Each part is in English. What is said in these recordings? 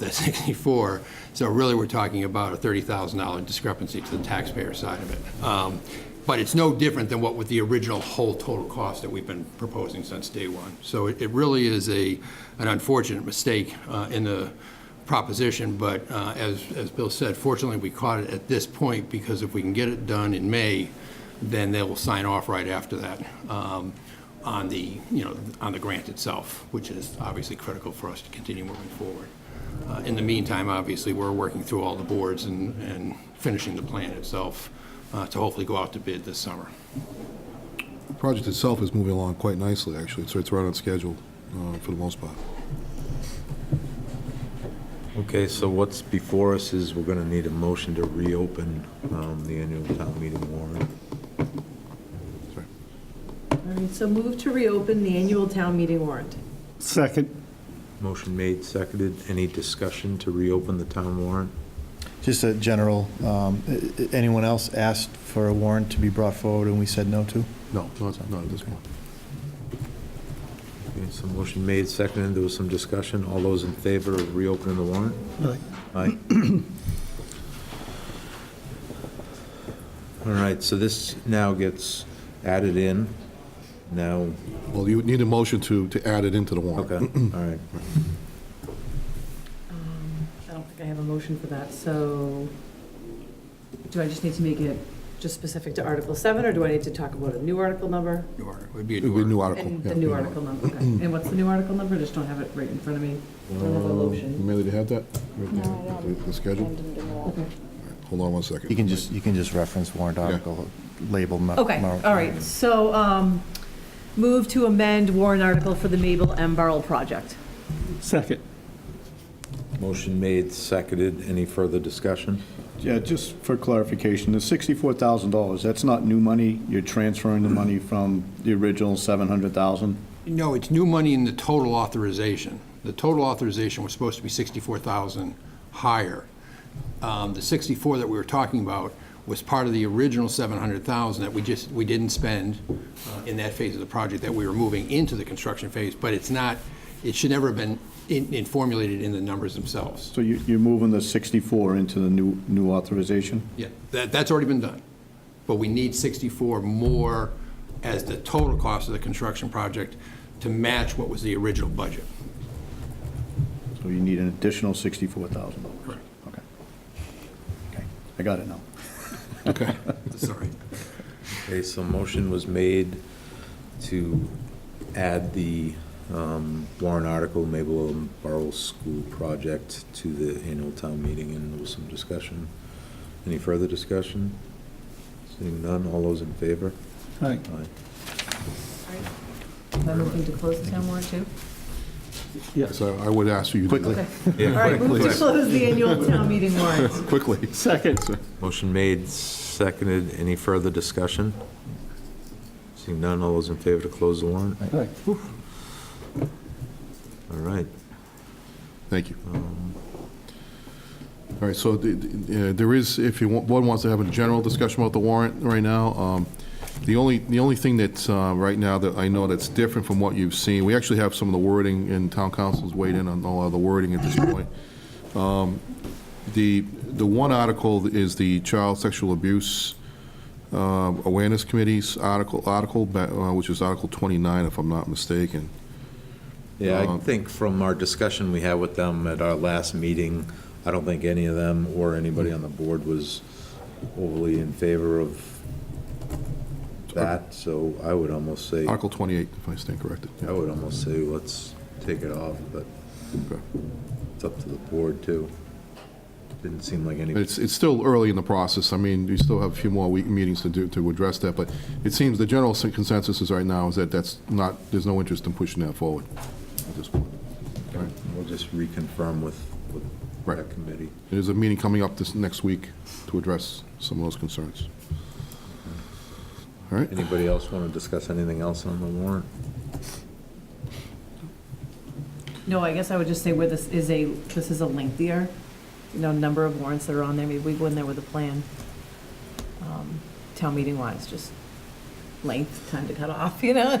the 64. So really, we're talking about a $30,000 discrepancy to the taxpayer side of it. Um, But it's no different than what with the original whole total cost that we've been proposing since day one. So it it really is a, an unfortunate mistake uh, in the proposition, but uh, as, as Bill said, fortunately, we caught it at this point, because if we can get it done in May, then they will sign off right after that um, on the, you know, on the grant itself, which is obviously critical for us to continue moving forward. Uh, In the meantime, obviously, we're working through all the boards and, and finishing the plan itself uh, to hopefully go out to bid this summer. The project itself is moving along quite nicely, actually, so it's right on schedule uh, for the most part. Okay, so what's before us is we're gonna need a motion to reopen um, the annual town meeting warrant. Sorry. All right, so move to reopen the annual town meeting warrant. Second. Motion made, seconded. Any discussion to reopen the town warrant? Just a general, um, i- i- anyone else asked for a warrant to be brought forward and we said no to? No, not not at this point. Okay, so motion made, seconded. There was some discussion. All those in favor of reopening the warrant? Aye. All right, so this now gets added in. Now, Well, you would need a motion to, to add it into the warrant. okay, all right. Um, I don't think I have a motion for that, so do I just need to make it just specific to Article 7, or do I need to talk about a new article number? New article, would be a It would be a new new article. article. And yeah, Mm-hmm. the new yeah. article number, okay. And what's the new article number? I Just don't have it right in front of me. I don't Uh, have a motion. Amanda, do you have that? No, I The- don't. The schedule? Didn't do that. Okay. Hold on one You second. can just, you can just reference warrant article, label. mo- Okay, mo- all right, so um, move to amend warrant article for the Mabel M. Burrell project. Second. Motion made, seconded. Any further discussion? Yeah, just for clarification, the $64,000, that's not new money? You're transferring the money from the original 700,000? No, it's new money in the total authorization. The total authorization was supposed to be 64,000 higher. Um, The 64 that we were talking about was part of the original 700,000 that we just, we didn't spend uh, in that phase of the project that we were moving into the construction phase, but it's not, it should never have been in in formulated in the numbers themselves. So you- you're moving the 64 into the new new authorization? Yeah, that, that's already been done. But we need 64 more as the total cost of the construction project to match what was the original budget. So you need an additional $64,000? Correct. Okay. Okay, I got it now. Okay. Sorry. Okay, so motion was made to add the um, warrant article, Mabel and Burrow School Project, to the annual town meeting, and there was some discussion. Any further discussion? Seeing none, all those in favor? Aye. Aye. Am I moving to close the town warrant, too? So I would ask you. to do Okay. that. All right, move to close the annual town meeting warrant. Quickly. Second. Motion made, seconded. Any further discussion? Seeing none, all those in favor to close the warrant? Aye. All right. Thank you. Um, All right, so the- the- uh, there is, if you, want- one wants to have a general discussion about the warrant right now, um, the only, the only thing that's, uh, right now that I know that's different from what you've seen, we actually have some of the wording, and town council's weighed in on all of the wording at this point. Um, The, the one article is the Child Sexual Abuse um, Awareness Committee's article, article, ba- uh, which is Article 29, if I'm not mistaken. Yeah, I Um, think from our discussion we had with them at our last meeting, I don't think any of them or anybody on the board was overly in favor of that, so I would almost say, I Article 28, if I stand corrected. yeah. would almost say, let's take it off, but Okay. it's up to the board, too. Didn't seem like any, It's, it's still early in the process. I mean, we still have a few more week meetings to do, to address that, but it seems the general consensus is right now is that that's not, there's no interest in pushing that forward at this point. we'll just reconfirm with, with Right. that committee. There's a meeting coming up this next week to address some of those concerns. All right, Anybody else want to discuss anything else on the warrant? No, I guess I would just say where this is a, this is a lengthier, you know, number of warrants that are on there, maybe we go in there with a plan. um, Town meeting wise, just length, time to cut off, you know?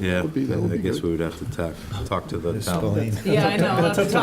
Yeah, Would be- that would I be guess good. we would have to talk, talk to the Ms. town. Spillane. Yeah, I know, that's tough.